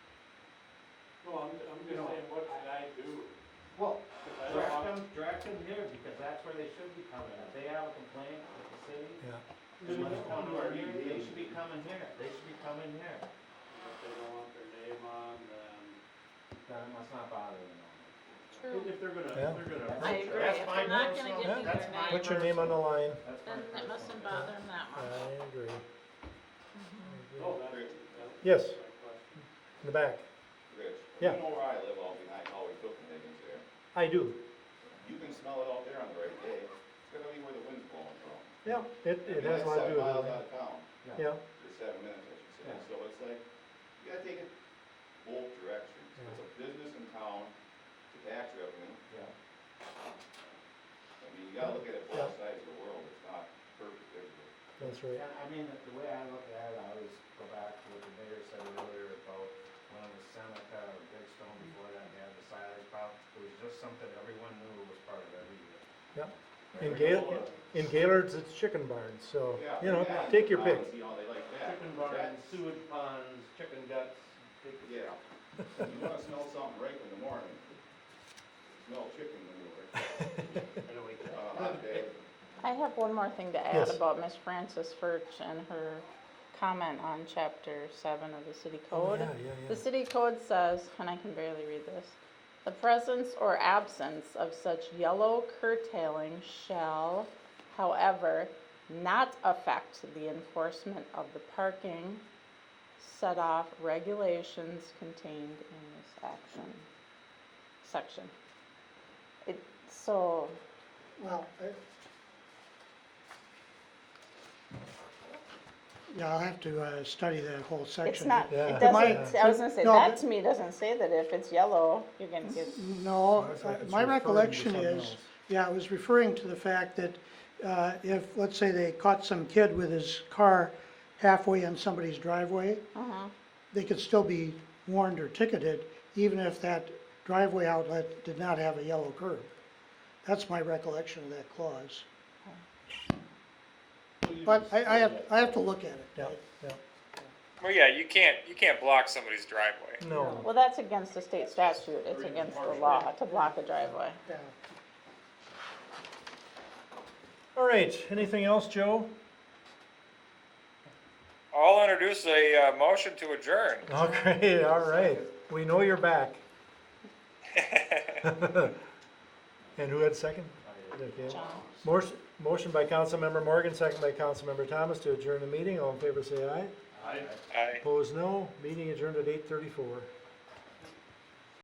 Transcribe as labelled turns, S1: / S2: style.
S1: I'm, I'm
S2: You
S1: just
S2: know,
S1: saying, what should I do?
S2: Well,
S1: 'Cause I don't
S2: direct
S1: want-
S2: them, direct them here, because that's where they should be coming. If they have a complaint with the city,
S3: Yeah,
S2: they must come to our meeting, they should be coming here, they should be coming here.
S1: If they don't want their name on, then.
S2: Then it must not bother them.
S1: If they're gonna, if
S3: Yeah.
S1: they're gonna.
S2: That's
S4: I
S1: approach
S4: agree,
S1: us,
S2: That's
S4: if
S2: my
S4: they're not gonna
S2: personal-
S4: give you
S2: that's
S4: their
S2: my
S4: name,
S3: put your name on the line,
S2: That's my
S4: then it mustn't
S2: personal-
S4: bother them that
S3: I
S4: much.
S3: agree. I
S1: Oh,
S3: agree.
S1: that's, that's.
S3: Yes.
S1: my question.
S3: In the back,
S5: Rich,
S3: Yeah.
S5: you know where I live all behind Holly Cook and Higgins there.
S3: I do,
S5: You can smell it out there on the right day. It's gonna be where the wind's blowing from.
S3: yeah, it, it has a lot to do with
S5: Miles
S3: it,
S5: out of town,
S3: yeah,
S5: or seven minutes, I should say.
S2: Yeah.
S5: So it's like, you gotta take it both directions. It's a business in town to tax revenue.
S2: Yeah.
S5: I mean, you gotta look at it both sides of the world. It's not perfect everywhere.
S3: that's right.
S2: Yeah, I mean, the the way I look at it, I always go back to what the mayor said earlier about when it was Seneca or Bridgestone before that, they had the silage pile. It was just something everyone knew was part of every year.
S3: Yep.
S2: Right,
S3: In
S2: right.
S3: Gail, in Gaylord's, it's chicken barns, so,
S5: Yeah, Um,
S3: you know,
S5: that
S3: take
S5: and
S3: your pick.
S5: I wanna See how they like that.
S2: Chicken barns,
S5: That's-
S2: sewage ponds, chicken guts, big-
S5: Yeah. You wanna smell something right in the morning. Smell chicken manure,
S2: I know we can.
S5: on a hot day.
S4: I have one more thing to add
S3: Yes.
S4: about Miss Frances Furch and her comment on chapter seven of the city
S3: Oh,
S4: code.
S3: yeah, yeah, yeah.
S4: The city code says, and I can barely read this, the presence or absence of such yellow curtailing shall, however, not affect the enforcement of the parking set off regulations contained in this action, section. It, so,
S6: Well, I- yeah, I'll have to uh, study that whole section.
S4: it's not,
S3: Yeah.
S4: it
S3: But my-
S4: doesn't, I was gonna say,
S6: No,
S4: that
S6: but-
S4: to me doesn't say that if it's yellow, you're gonna get,
S6: No,
S3: Sounds like
S6: uh,
S3: it's
S6: my
S3: referring to
S6: recollection
S3: something
S6: is,
S3: else.
S6: yeah, it was referring to the fact that uh, if, let's say they caught some kid with his car halfway in somebody's driveway, they could still be warned or ticketed, even if that driveway outlet did not have a yellow curb. That's my recollection of that clause. But I, I have, I have to look at it.
S3: Yeah, yeah,
S7: Well, yeah, you can't you can't block somebody's driveway.
S3: no,
S4: well, that's against the state statute, it's against the law to block a driveway.
S6: Yeah.
S3: all right, anything else, Joe?
S7: I'll introduce a uh, motion to adjourn.
S3: Okay, all right, we know you're back. And who had second? Okay.
S4: John.
S3: Motion, motion by Councilmember Morgan, second by Councilmember Thomas to adjourn the meeting, all in favor say aye.
S7: I
S3: Opposed, no. Meeting adjourned at eight thirty-four.